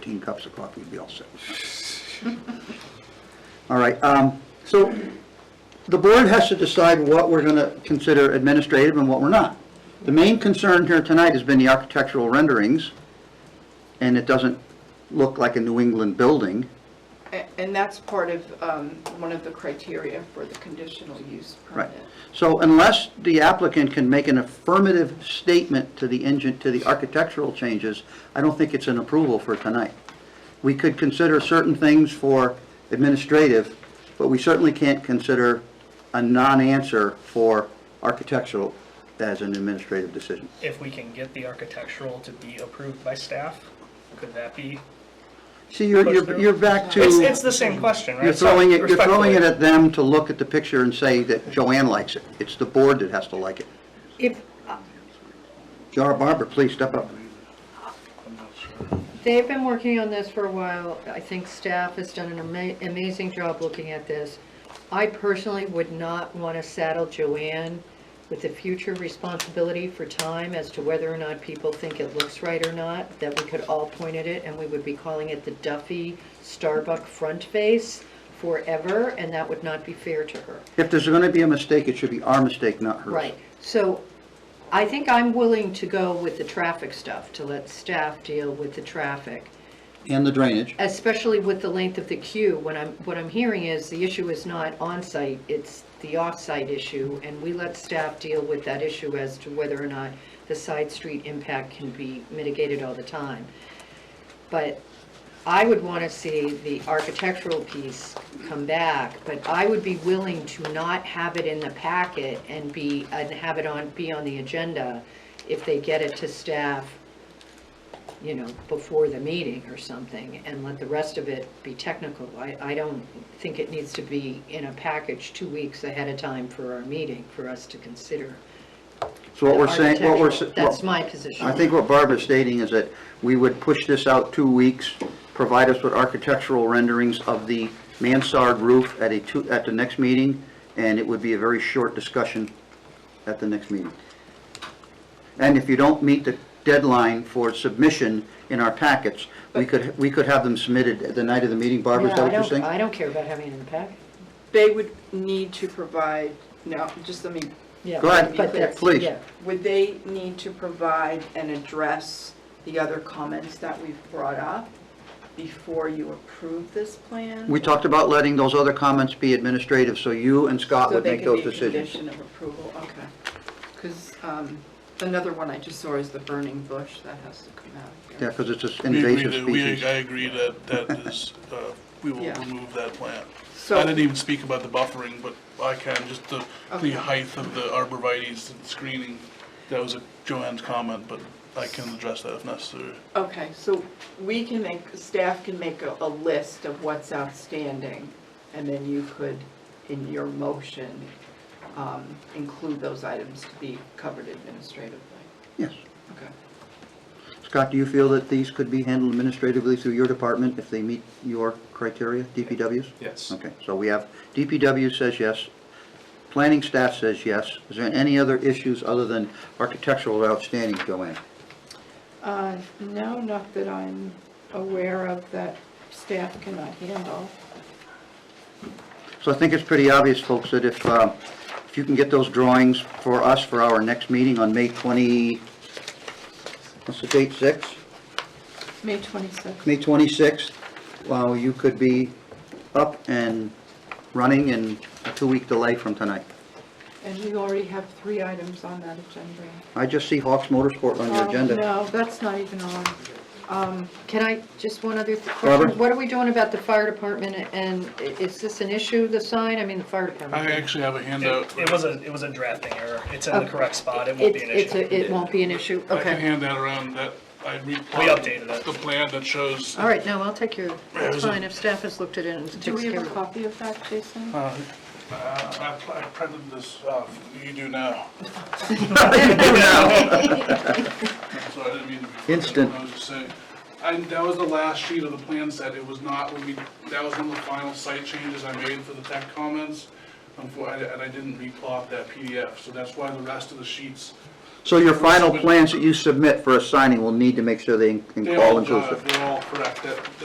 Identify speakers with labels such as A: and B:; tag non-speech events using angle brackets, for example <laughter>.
A: 15 cups of coffee, would be all set. <laughs> All right, um, so the board has to decide what we're going to consider administrative and what we're not. The main concern here tonight has been the architectural renderings, and it doesn't look like a New England building.
B: A- And that's part of, um, one of the criteria for the conditional use
A: Right.
B: permit.
A: So unless the applicant can make an affirmative statement to the engine, to the architectural changes, I don't think it's an approval for tonight. We could consider certain things for administrative, but we certainly can't consider a non-answer for architectural as an administrative decision.
C: If we can get the architectural to be approved by staff, could that be?
A: See, you're, you're, you're back to,
C: It's, it's the same question, right?
A: you're throwing it, you're throwing it
C: Respectfully.
A: at them to look at the picture and say that Joanne likes it. It's the board that has to like it.
D: If
A: Jar Barbara, please step up.
D: They've been working on this for a while. I think staff has done an ama- amazing job looking at this. I personally would not want to saddle Joanne with the future responsibility for time as to whether or not people think it looks right or not, that we could all point at it and we would be calling it the Duffy Starbuck front face forever, and that would not be fair to her.
A: If there's going to be a mistake, it should be our mistake, not hers.
D: Right, so I think I'm willing to go with the traffic stuff, to let staff deal with the traffic.
A: And the drainage.
D: especially with the length of the queue, what I'm, what I'm hearing is the issue is not on-site, it's the off-site issue, and we let staff deal with that issue as to whether or not the side street impact can be mitigated all the time. But I would want to see the architectural piece come back, but I would be willing to not have it in the packet and be, and have it on, be on the agenda if they get it to staff you know, before the meeting or something, and let the rest of it be technical. I, I don't think it needs to be in a package two weeks ahead of time for our meeting, for us to consider.
A: So what we're saying, what we're. s-
D: Architectural, That's
A: well,
D: my position.
A: I think what Barbara's stating is that we would push this out two weeks, provide us with architectural renderings of the mansard roof at a two, at the next meeting, and it would be a very short discussion at the next meeting. And if you don't meet the deadline for submission in our packets, we could, we could have them submitted at the night of the meeting. Barbara, is
D: No,
A: that
D: I
A: what you're
D: don't-
A: saying?
D: I don't care about having it in the packet.
B: They would need to provide, no, just let me,
D: Yeah,
A: Go ahead,
D: but that's-
A: please.
D: yeah.
B: would they need to provide and address the other comments that we've brought up before you approve this plan?
A: We talked about letting those other comments be administrative, so you and Scott
B: So
A: would
B: they
A: make
B: can
A: those
B: be a
A: decisions.
B: condition of approval, okay. Because another one I just saw is the burning bush, that has to come out of
A: Yeah,
B: here.
A: because it's an
E: We agree
A: invasive
E: that- we-
A: species.
E: I agree that that is, uh, we will
B: Yeah.
E: remove that plant.
B: So-
E: I didn't even speak about the buffering, but I can, just the,
B: Okay.
E: the height of the arborvitae's and screening. That was a Joanne's comment, but I can address that if necessary.
B: Okay, so we can make, staff can make a, a list of what's outstanding, and then you could, in your motion, um, include those items to be covered administratively.
A: Yes.
B: Okay.
A: Scott, do you feel that these could be handled administratively through your department if they meet your criteria, DPW's?
F: Yes.
A: Okay, so we have, DPW says yes, planning staff says yes. Is there any other issues other than architectural outstanding, Joanne?
B: Uh, no, not that I'm aware of that staff cannot handle.
A: So I think it's pretty obvious, folks, that if, uh, if you can get those drawings for us for our next meeting on May 20, what's the date, 6?
B: May twenty-sixth.
A: May 26th, well, you could be up and running in a two-week delay from tonight.
B: And we already have three items on that agenda.
A: I just see Hawks Motorsport on your
B: Oh,
A: agenda.
B: No, that's not even on. Um,
D: Can I, just one other th-
A: Barbara?
D: question? What are we doing about the fire department, and i- is this an issue, the sign? I mean, the fire department.
E: I actually have a handout.
C: It it was a, it was a drafting error. It's in the
D: Okay.
C: correct spot. It won't be an
D: It's- it's
C: issue.
D: a- It won't be an issue,
E: I can
D: okay.
E: hand that around, that, I
C: We
E: replied.
C: updated it.
E: The plan that shows,
D: All right, no, I'll take your, that's
E: was a-
D: fine, if staff has looked at it and takes care
B: do
D: of it.
B: we have a copy of that, Jason?
E: uh, I pl- I printed this, uh, you do now. So I didn't mean to be.
A: Instant.
E: I was just saying, I, that was the last sheet of the plan set, it was not, when we, that was one of the final site changes I made for the tech comments. Unfor- I- And I didn't replot that PDF, so that's why the rest of the sheets
A: So your final plans that you submit for a signing will need to make sure they
E: They
A: in-
E: all,
A: all into the...
E: uh, they're all correct, that,